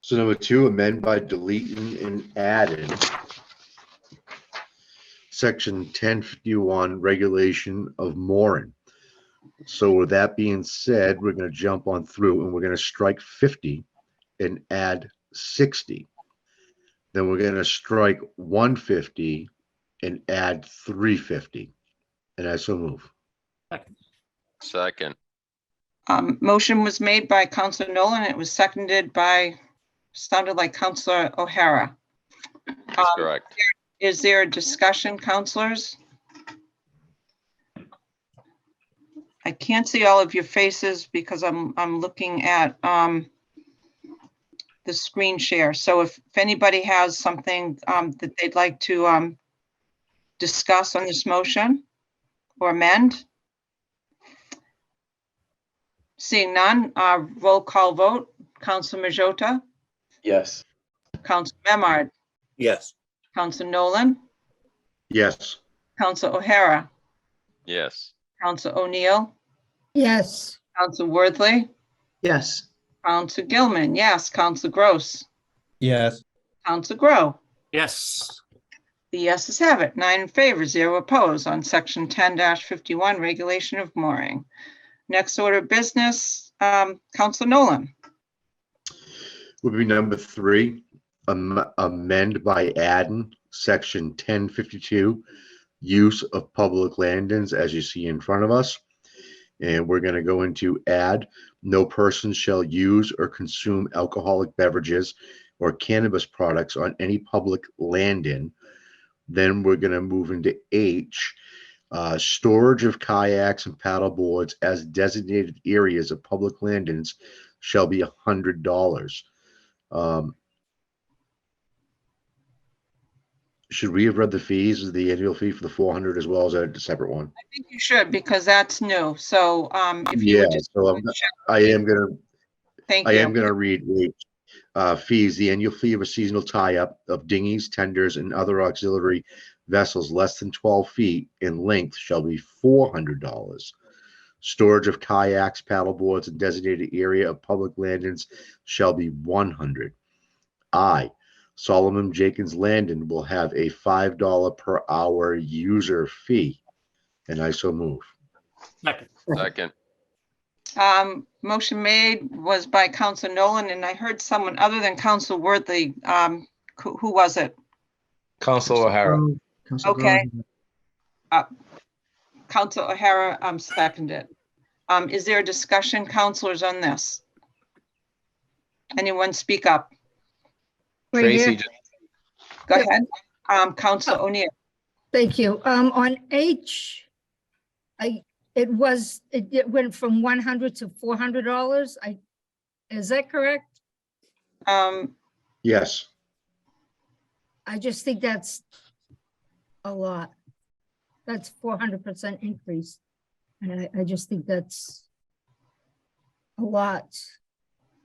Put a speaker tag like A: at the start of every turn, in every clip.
A: So number two, amend by deleting and adding section ten fifty-one regulation of mooring. So with that being said, we're gonna jump on through and we're gonna strike fifty and add sixty. Then we're gonna strike one fifty and add three fifty. And I so move.
B: Second,
C: Um, motion was made by Counselor Nolan. It was seconded by, sounded like Counselor O'Hara.
B: that's
C: Um,
B: correct.
C: Is there a discussion, counselors? I can't see all of your faces because I'm, I'm looking at um, the screen share. So if if anybody has something um, that they'd like to um, discuss on this motion or amend? Seeing none, uh, roll call vote. Counsel Majota,
D: Yes.
C: Counsel Memard,
E: yes,
C: Counsel Nolan,
A: Yes,
C: Counsel O'Hara.
B: Yes,
C: Counsel O'Neill,
F: yes,
C: Counsel Worthley,
D: Yes.
C: Counsel Gilman, yes, Counsel Gross,
G: yes,
C: Counsel Grow.
H: yes,
C: The yeses have it, nine in favor, zero opposed on section ten fifty-one, regulation of mooring. Next order of business, um, Counsel Nolan,
A: would be number three, am- amend by adding section ten fifty-two, use of public landings, as you see in front of us. And we're gonna go into add, no person shall use or consume alcoholic beverages or cannabis products on any public landing. Then we're gonna move into H, uh, storage of kayaks and paddle boards as designated areas of public landings shall be a hundred dollars. Um, should we have read the fees, Is the annual fee for the four hundred as well as a separate one?
C: I think you should, because that's new, so, um, if you
A: Yeah,
C: would just.
A: so I'm, I am gonna
C: Thank
A: I am
C: you,
A: gonna read the uh, fees, the annual fee of a seasonal tie-up of dinghies, tenders, and other auxiliary vessels less than twelve feet in length shall be four hundred dollars. Storage of kayaks, paddleboards, and designated area of public landings shall be one hundred. I, Solomon Jenkins Landon, will have a five dollar per hour user fee, and I so move.
H: second,
B: second,
C: um, motion made was by Counsel Nolan, and I heard someone other than Counsel Worthley, um, who, who was it?
D: Council O'Hara.
C: Okay. Uh, Council O'Hara, um, seconded. Um, is there a discussion, counselors, on this? Anyone speak up?
F: right here.
D: Tracy, just-
C: Go ahead. Um, Council O'Neill,
F: Thank you. Um, on H, I, it was, it, it went from one hundred to four hundred dollars. I, is that correct?
C: um,
A: Yes,
F: I just think that's a lot. That's four hundred percent increase. And I, I just think that's a lot.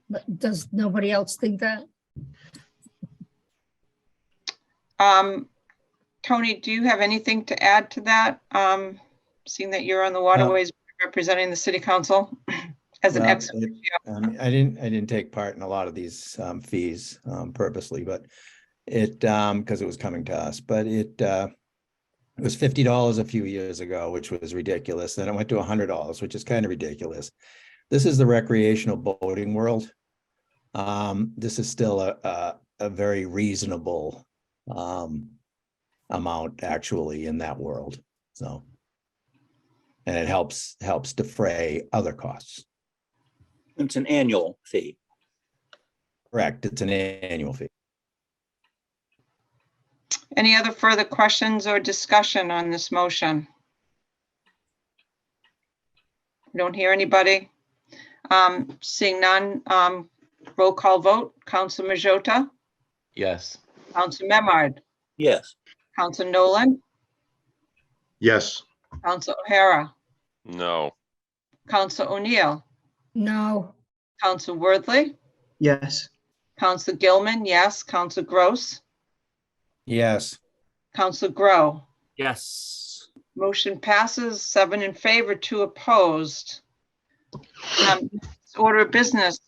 F: But does nobody else think that?
C: um, Tony, do you have anything to add to that? Um, seeing that you're on the waterways representing the city council as an
G: No,
C: ex.
G: it- um, I didn't, I didn't take part in a lot of these um, fees um, purposely, but it, um, because it was coming to us, but it uh, it was fifty dollars a few years ago, which was ridiculous. Then it went to hundred dollars, which is kind of ridiculous. This is the recreational boating world. Um, This is still a, a, a very reasonable um, amount actually in that world, so. And it helps, helps defray other costs.
E: it's an annual fee.
G: Correct, it's an annual fee.
C: Any other further questions or discussion on this motion? Don't hear anybody. Um, Seeing none, um, roll call vote. Council Majota,
D: Yes.
C: Council Memard,
E: Yes,
C: Council Nolan,
A: yes,
C: Council O'Hara,
B: no,
C: Council O'Neill,
F: No,
C: Council Worthley,
D: Yes.
C: Council Gilman, yes, Council Gross,
G: Yes,
C: Council Grow.
H: yes.
C: Motion passes, seven in favor, two opposed. Um, Order of business,